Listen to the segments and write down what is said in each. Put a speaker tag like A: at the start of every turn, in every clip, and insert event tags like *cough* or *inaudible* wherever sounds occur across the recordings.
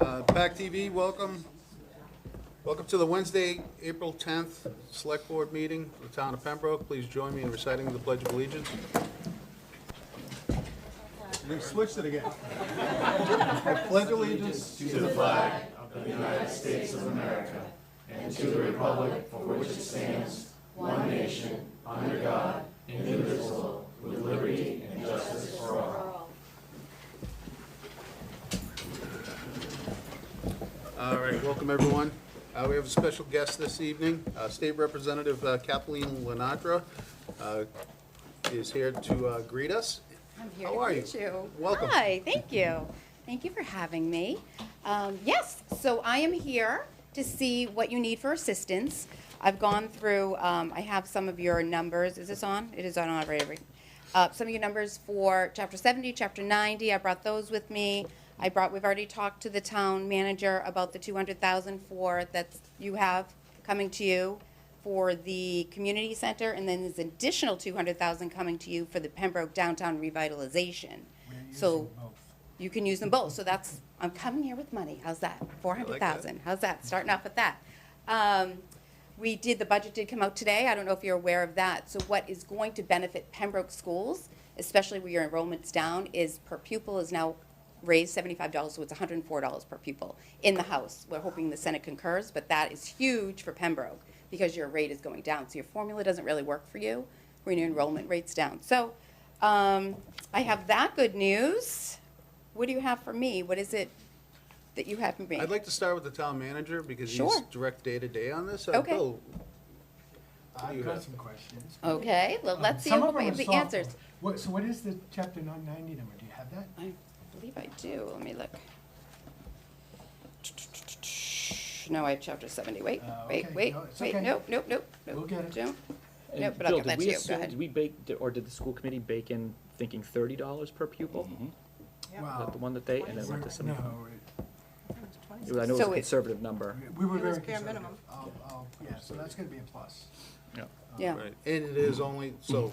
A: Uh, PAC TV, welcome. Welcome to the Wednesday, April 10th Select Board Meeting of the Town of Pembroke. Please join me in reciting the Pledge of Allegiance. We switched it again. I pledge allegiance to the flag All right, welcome everyone. Uh, We have a special guest this evening, Uh, State Representative uh, Kathleen Lenatra uh, is here to uh, greet us.
B: I'm here
A: How
B: to
A: are
B: meet
A: you?
B: you.
A: Welcome.
B: Hi, thank you. Thank you for having me. Um, Yes, so I am here to see what you need for assistance. I've gone through, um, I have some of your numbers, is this on? It is on already. Uh, Some of your numbers for Chapter 70, Chapter 90, I brought those with me. I brought, we've already talked to the town manager about the 200,000 for, that you have coming to you for the community center, and then there's additional two hundred thousand coming to you for the Pembroke downtown revitalization. So you can use them both, so that's, I'm coming here with money, how's that? Four hundred thousand, how's that? Starting off with that. Um, we did, the budget did come out today, I don't know if you're aware of that. So what is going to benefit Pembroke schools, especially where your enrollment's down, is per pupil is now raised seventy-five dollars, so it's hundred and four dollars per pupil in the House. We're hoping the Senate concurs, but that is huge for Pembroke because your rate is going down. So your formula doesn't really work for you when your enrollment rate's down. So um, I have that good news. What do you have for me? What is it that you have for me?
A: I'd like to start with the town manager because he's
B: Sure.
A: direct day-to-day on this. Uh,
B: Okay.
A: Bill,
C: I've
A: you
C: got
A: have?
C: some questions.
B: Okay, well,
C: Um,
B: let's see
C: some
B: if
C: of 'em
B: we
C: are
B: have the
C: softball.
B: answers.
C: What, so what is the chapter nine ninety number? Do you have that?
B: I believe I do. Let me look. No, I have chapter seventy. Wait,
C: Uh,
B: wait,
C: okay.
B: wait,
C: No, it's
B: wait.
C: okay.
B: Nope, nope, nope, nope.
C: We'll get it.
B: Don't.
D: And
B: Nope, but I'll
D: Bill,
B: get
D: did
B: that
D: we
B: to you. Go
D: assume-
B: ahead.
D: Did we bake, or did the school committee bake in thinking thirty dollars per pupil? Is
C: Wow.
D: that the one that they, and then went to some,
C: No,
D: it was- I know it was
B: So
D: a
B: it-
D: conservative number.
C: it- we were
E: It was
C: very
E: bare
C: conservative.
E: minimum.
C: I'll, I'll, yeah, so that's gonna be a plus.
D: Yeah.
B: Yeah.
A: right, and it is only, so.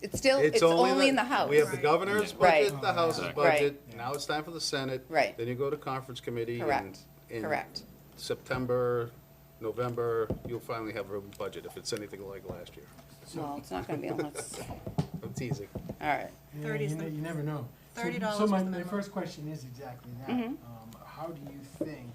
B: It's still, it's only in the House.
A: We have the
E: Right.
A: governor's
B: Right.
A: budget, the House's
B: Right.
A: budget, now it's time for the Senate.
B: Right.
A: Then you go to conference committee. and
B: Correct.
A: in
B: Correct.
A: September, November, you'll finally have a budget if it's anything like last year.
B: Well, it's not gonna be
C: *laughs*
B: unless,
A: I'm teasing.
B: all right.
C: Yeah,
E: 30 is
C: you
E: the-
C: ne- You never know. So-
E: $30
C: So my,
E: was the
C: my
E: minimum.
C: first question is exactly that.
B: Mhm.
C: Um, How do you think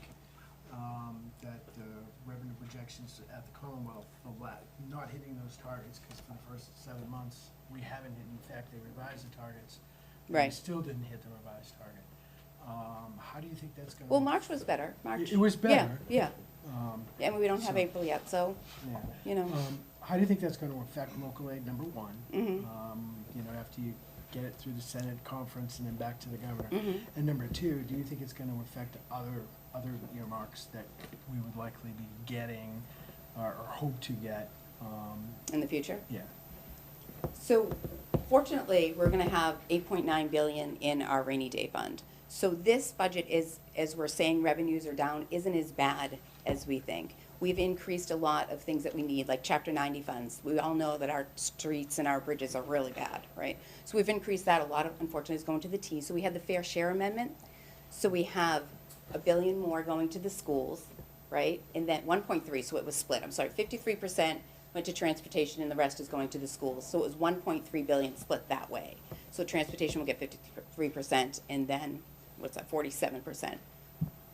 C: um, that the revenue projections at the Commonwealth, the la- not hitting those targets, because for the first seven months, we haven't hit, in fact, they revised the targets. and We
B: Right.
C: still didn't hit the revised target. Um, How do you think that's gonna?
B: Well, March was better. March.
C: It was
B: Yeah,
C: better.
B: Yeah,
C: um,
B: and we don't have
C: So-
B: April yet, so,
C: Yeah.
B: you know,
C: Um, How do you think that's gonna affect local aid, number one?
B: Mhm.
C: Um, You know, after you get it through the Senate conference and then back to the governor?
B: Mhm.
C: And number two, do you think it's gonna affect other, other earmarks that we would likely be getting or or hope to get? Um,
B: in the future.
C: Yeah,
B: So fortunately, we're gonna have eight point nine billion in our rainy day fund. So this budget is, as we're saying, revenues are down, isn't as bad as we think. We've increased a lot of things that we need, like chapter ninety funds. We all know that our streets and our bridges are really bad, right? So we've increased that. A lot of, unfortunately, is going to the T. So we had the fair share amendment. So we have a billion more going to the schools, right? And then one point three, so it was split, I'm sorry, fifty-three percent went to transportation and the rest is going to the schools. So it was one point three billion split that way. So transportation will get fifty-three percent and then, what's that, forty-seven percent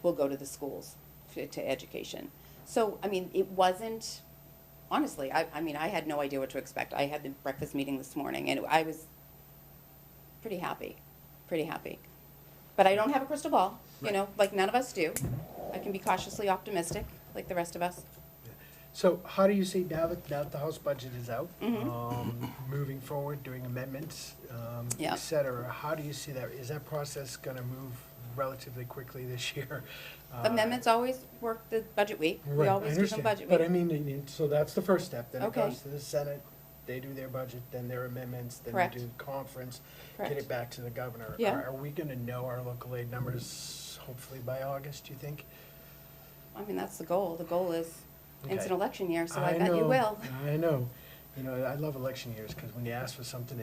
B: will go to the schools, to, to education. So, I mean, it wasn't, honestly, I, I mean, I had no idea what to expect. I had the breakfast meeting this morning and I was pretty happy, pretty happy. But I don't have a crystal ball, you know, like none of us do. I can be cautiously optimistic, like the rest of us.
C: So how do you see now that, now that the House budget is out,
B: Mhm.
C: um, moving forward, doing amendments, um,
B: Yeah.
C: et cetera, how do you see that? Is that process going to move relatively quickly this year? Uh,
B: Amendments always work the budget week. We
C: Right, I
B: always do some
C: understand.
B: budget
C: But I
B: week.
C: mean, I mean, so that's the first step, then it
B: Okay.
C: goes to the Senate, they do their budget, then their amendments, then
B: Correct.
C: they do conference, get
B: Correct.
C: it back to the governor.
B: Yeah.
C: Are- Are we gonna know our local aid numbers hopefully by August, do you think?
B: I mean, that's the goal. The goal is, it's
C: Okay.
B: an election year, so I bet
C: know,
B: you will.
C: I know, you know, I love election years, because when you ask for something